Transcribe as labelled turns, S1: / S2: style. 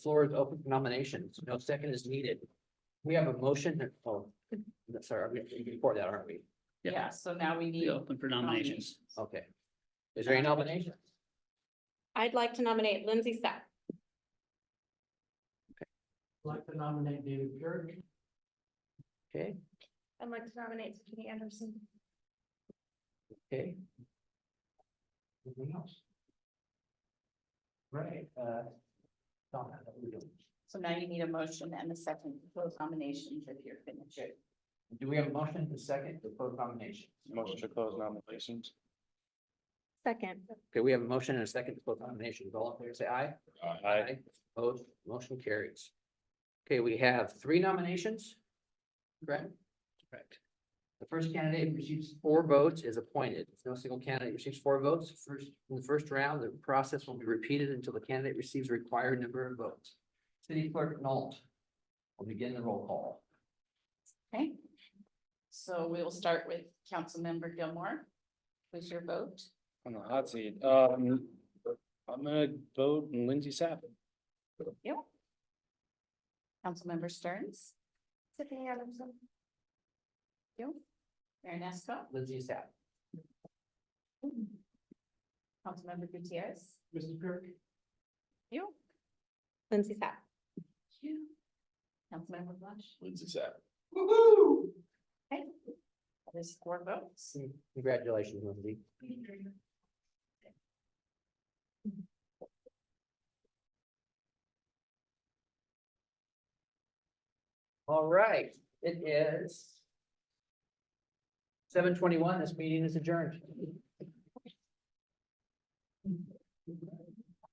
S1: Floor is open for nominations. No second is needed. We have a motion, that- oh, that's- sorry, we we can record that, aren't we?
S2: Yeah.
S3: Yeah, so now we
S2: Be
S3: need,
S2: open for nominations.
S1: Okay. Is there any nominations?
S4: I'd like to nominate Lindsay Sapp.
S5: Like to nominate David Garrett.
S1: Okay,
S6: I'd like to nominate Tiffany Anderson.
S1: okay. Anything else?
S5: Right, uh. Donna, that we don't-
S3: so now you need a motion and a second to close nominations if you're finished.
S1: Do we have a motion and a second to close nominations?
S7: Motion to close nominations.
S4: Second.
S1: Okay, we have a motion and a second to close nominations. All in favor, say aye.
S7: Aye.
S1: Opposed, motion carries. Okay, we have three nominations. Correct? Correct. The first candidate who receives four votes is appointed. If no single candidate receives four votes, first, in the first round, the process will be repeated until the candidate receives the required number of votes. City clerk Nolt will begin the roll call.
S3: Okay. So we will start with Councilmember Gilmore. Who's your vote?
S7: On the hot seat, um, I'm gonna vote Lindsay Sapp.
S3: Councilmember Stearns,
S6: Tiffany Anderson.
S3: you, Mayor Nesco,
S1: Lindsay Sapp.
S3: Councilmember Gutierrez,
S5: Mrs. Kirk,
S3: you,
S4: Lindsay Sapp.
S3: you, Councilmember Blush.
S7: Lindsay Sapp.
S3: Okay. There's four votes.
S1: Mm, Congratulations, Lindsay. All right, it is. Seven twenty-one, this meeting is adjourned.